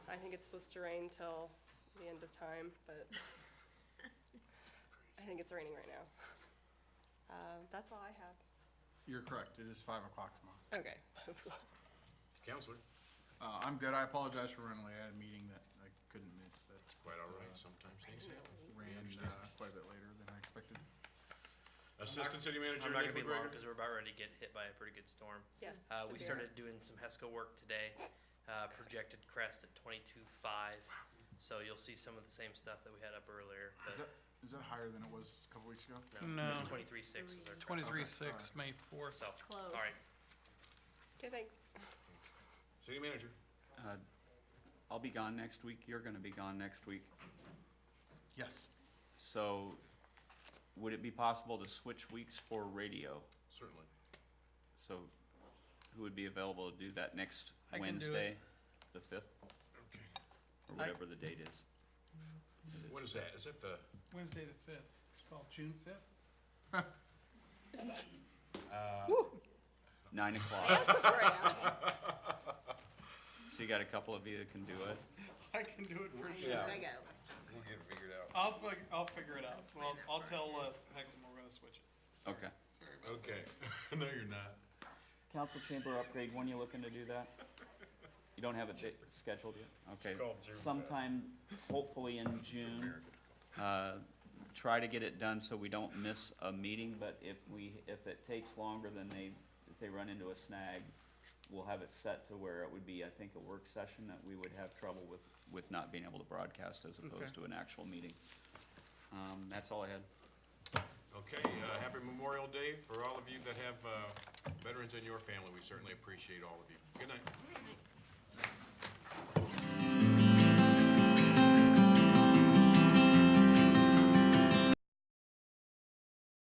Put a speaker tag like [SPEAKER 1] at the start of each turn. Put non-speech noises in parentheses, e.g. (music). [SPEAKER 1] think it's supposed to rain till the end of time, but I think it's raining right now. Uh, That's all I have.
[SPEAKER 2] You're correct. It is five o'clock tomorrow.
[SPEAKER 1] Okay.
[SPEAKER 3] Counselor?
[SPEAKER 2] Uh, I'm good. I apologize for running late. I had a meeting that I couldn't miss that
[SPEAKER 3] Quite all right, sometimes things happen.
[SPEAKER 2] ran uh,
[SPEAKER 3] understand.
[SPEAKER 2] quite a bit later than I expected.
[SPEAKER 3] Assistant City Manager
[SPEAKER 4] I'm not
[SPEAKER 3] Nick
[SPEAKER 4] gonna be long
[SPEAKER 3] McGregor?
[SPEAKER 4] because we're about ready to get hit by a pretty good storm.
[SPEAKER 1] Yes.
[SPEAKER 4] Uh, we
[SPEAKER 1] severe.
[SPEAKER 4] started doing some HESCO work today, uh, projected crest at twenty-two five. So you'll see some of the same stuff that we had up earlier.
[SPEAKER 2] Is
[SPEAKER 4] but
[SPEAKER 2] that, is that higher than it was a couple weeks ago?
[SPEAKER 5] No.
[SPEAKER 4] Twenty-three six was our crest.
[SPEAKER 5] Twenty-three
[SPEAKER 2] Okay,
[SPEAKER 5] six, May fourth.
[SPEAKER 4] So, all right.
[SPEAKER 1] Okay, thanks.
[SPEAKER 3] City Manager?
[SPEAKER 6] Uh, I'll be gone next week, you're gonna be gone next week,
[SPEAKER 2] Yes.
[SPEAKER 6] so would it be possible to switch weeks for radio?
[SPEAKER 3] Certainly.
[SPEAKER 6] So who would be available to do that next
[SPEAKER 5] I can do it.
[SPEAKER 6] Wednesday, the fifth,
[SPEAKER 3] Okay.
[SPEAKER 6] or
[SPEAKER 5] I-
[SPEAKER 6] whatever the date is?
[SPEAKER 3] What is that? Is that the,
[SPEAKER 5] Wednesday the fifth. It's called June fifth. (laughs) (laughs)
[SPEAKER 6] Nine o'clock,
[SPEAKER 1] Right.
[SPEAKER 6] so you got a couple of you that can do it?
[SPEAKER 5] I can do it for sure.
[SPEAKER 3] Yeah.
[SPEAKER 7] I go.
[SPEAKER 3] we'll get it figured out.
[SPEAKER 5] I'll fig, I'll figure it out. Well, I'll tell, uh, Hexum we're gonna switch it. Sorry.
[SPEAKER 6] Okay.
[SPEAKER 5] Sorry about
[SPEAKER 3] Okay. (laughs) No, you're not.
[SPEAKER 6] Council chamber upgrade, when you looking to do that? You don't have it di- scheduled yet? Okay.
[SPEAKER 3] called Zoom.
[SPEAKER 6] Sometime, hopefully in June. Uh, Try to get it done so we don't miss a meeting, but if we, if it takes longer than they, if they run into a snag, we'll have it set to where it would be, I think, a work session that we would have trouble with, with not being able to broadcast as opposed to an actual meeting. Um, That's all I had.
[SPEAKER 3] Okay, uh, happy Memorial Day for all of you that have uh, veterans in your family. We certainly appreciate all of you. Good night.